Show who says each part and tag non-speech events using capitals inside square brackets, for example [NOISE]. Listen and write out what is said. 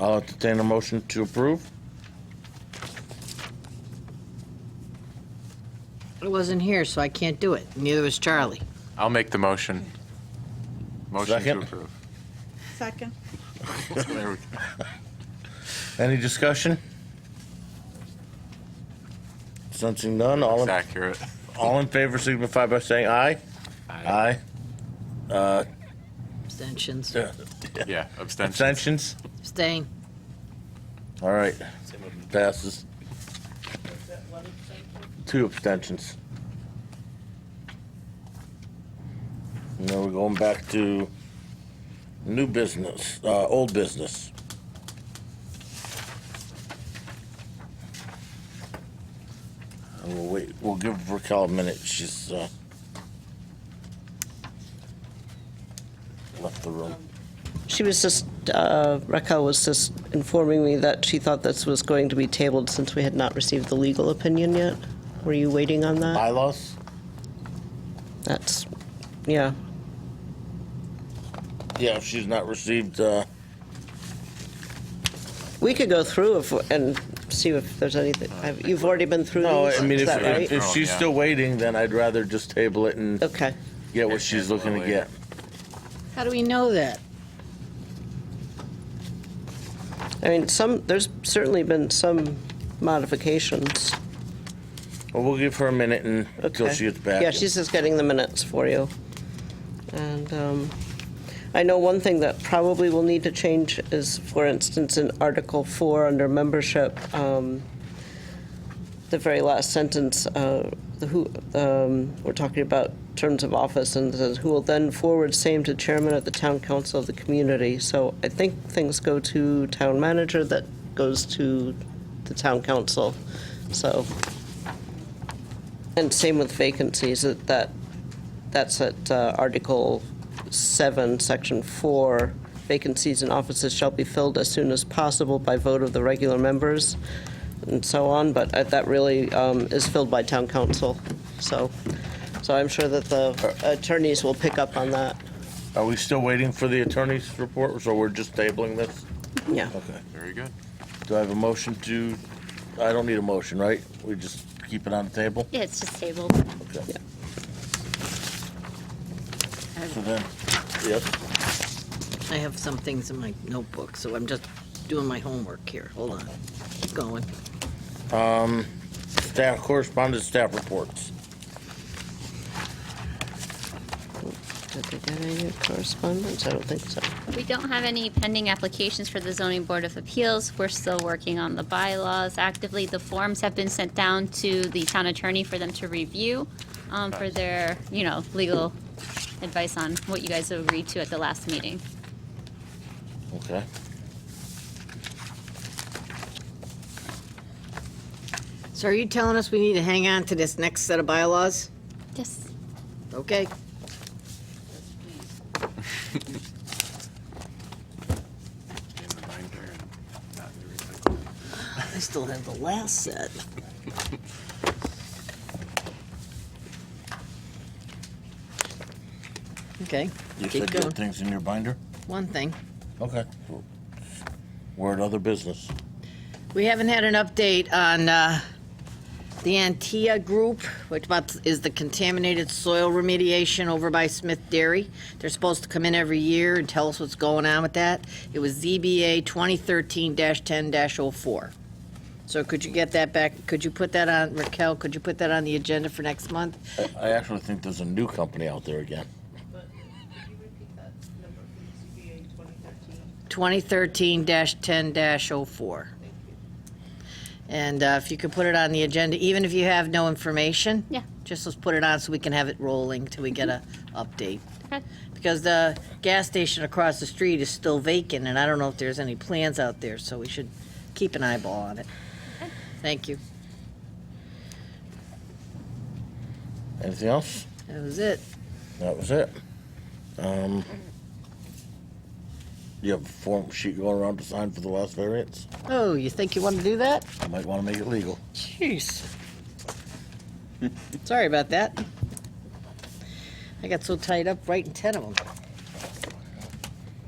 Speaker 1: I'll entertain a motion to approve.
Speaker 2: I wasn't here, so I can't do it. Neither was Charlie.
Speaker 3: I'll make the motion. Motion to
Speaker 1: Second. [LAUGHS]
Speaker 3: approve.
Speaker 4: Second.
Speaker 3: There we go.
Speaker 1: Any discussion? Sensing none, all
Speaker 3: It's
Speaker 1: in,
Speaker 3: accurate.
Speaker 1: all in favor signify by saying aye. Aye.
Speaker 2: Abstentions.
Speaker 1: Uh,
Speaker 3: Yeah, abstention.
Speaker 1: Abstentions?
Speaker 2: Abstain.
Speaker 1: All right, passes. Two abstentions. Now we're going back to new business, uh, old business. And We'll wait, we'll give Raquel a minute, she's, uh, left the room.
Speaker 5: She was just, uh, Raquel was just informing me that she thought this was going to be tabled since we had not received the legal opinion yet. Were you waiting on that?
Speaker 1: Bylaws?
Speaker 5: That's, yeah.
Speaker 1: Yeah, if she's not received, uh,
Speaker 5: We could go through if- and see if there's anything, have- you've already been through
Speaker 1: No,
Speaker 5: these,
Speaker 1: I mean,
Speaker 5: is
Speaker 1: if,
Speaker 5: that
Speaker 1: if,
Speaker 5: right?
Speaker 1: if she's still waiting, then I'd rather just table it and
Speaker 5: Okay.
Speaker 1: get what she's looking to get.
Speaker 2: How do we know that?
Speaker 5: I mean, some, there's certainly been some modifications.
Speaker 1: Well, we'll give her a minute and, until
Speaker 5: Okay.
Speaker 1: she gets back.
Speaker 5: Yeah, she's just getting the minutes for you. And um, I know one thing that probably will need to change is, for instance, in Article 4 under membership, um, the very last sentence, uh, the who, um, we're talking about terms of office, and it says, "Who will then forward same to chairman of the town council of the community." So I think things go to town manager, that goes to the town council. So and same with vacancies, that, that- that's at uh, Article 7, Section 4, vacancies in offices shall be filled as soon as possible by vote of the regular members, and so on, but uh, that really um, is filled by town council, so, so I'm sure that the attorneys will pick up on that,
Speaker 1: Are we still waiting for the attorney's report, so we're just tabling this?
Speaker 5: yeah.
Speaker 1: Okay.
Speaker 3: Very good.
Speaker 1: Do I have a motion to, I don't need a motion, right? We just keep it on the table?
Speaker 6: Yeah, it's just tabled.
Speaker 1: Okay.
Speaker 5: Yeah.
Speaker 1: So then, yes,
Speaker 2: I have some things in my notebook, so I'm just doing my homework here. Hold on. Keep going.
Speaker 1: staff, correspondence, staff reports.
Speaker 5: Did they get any correspondence? I don't think so.
Speaker 6: We don't have any pending applications for the zoning board of appeals. We're still working on the bylaws actively. The forms have been sent down to the town attorney for them to review um, for their, you know, legal advice on what you guys agreed to at the last meeting.
Speaker 1: Okay.
Speaker 2: So are you telling us we need to hang on to this next set of bylaws?
Speaker 6: Yes.
Speaker 2: Okay. I still have the last set. Okay,
Speaker 1: You
Speaker 2: Keep
Speaker 1: said you
Speaker 2: going.
Speaker 1: had things in your binder?
Speaker 2: one thing.
Speaker 1: Okay. We're at other business.
Speaker 2: We haven't had an update on uh, the Antia Group, which about- is the contaminated soil remediation over by Smith Dairy. They're supposed to come in every year and tell us what's going on with that. It was ZBA 2013-10-04. So could you get that back, could you put that on, Raquel, could you put that on the agenda for next month?
Speaker 1: I- I actually think there's a new company out there again.
Speaker 2: 2013-10-04. And uh, if you could put it on the agenda, even if you have no information.
Speaker 6: Yeah. Mm-hmm.
Speaker 2: Just let's put it on so we can have it rolling till we get a update.
Speaker 6: Okay.
Speaker 2: Because the gas station across the street is still vacant, and I don't know if there's any plans out there, so we should keep an eyeball on it. Thank you.
Speaker 1: Anything else?
Speaker 2: That was it.
Speaker 1: That was it. Um, you have a form sheet going around to sign for the last variance?
Speaker 2: Oh, you think you want to do that?
Speaker 1: I might want to make it legal.
Speaker 2: Jeez. Sorry about that. I got so tied up writing 10 of them.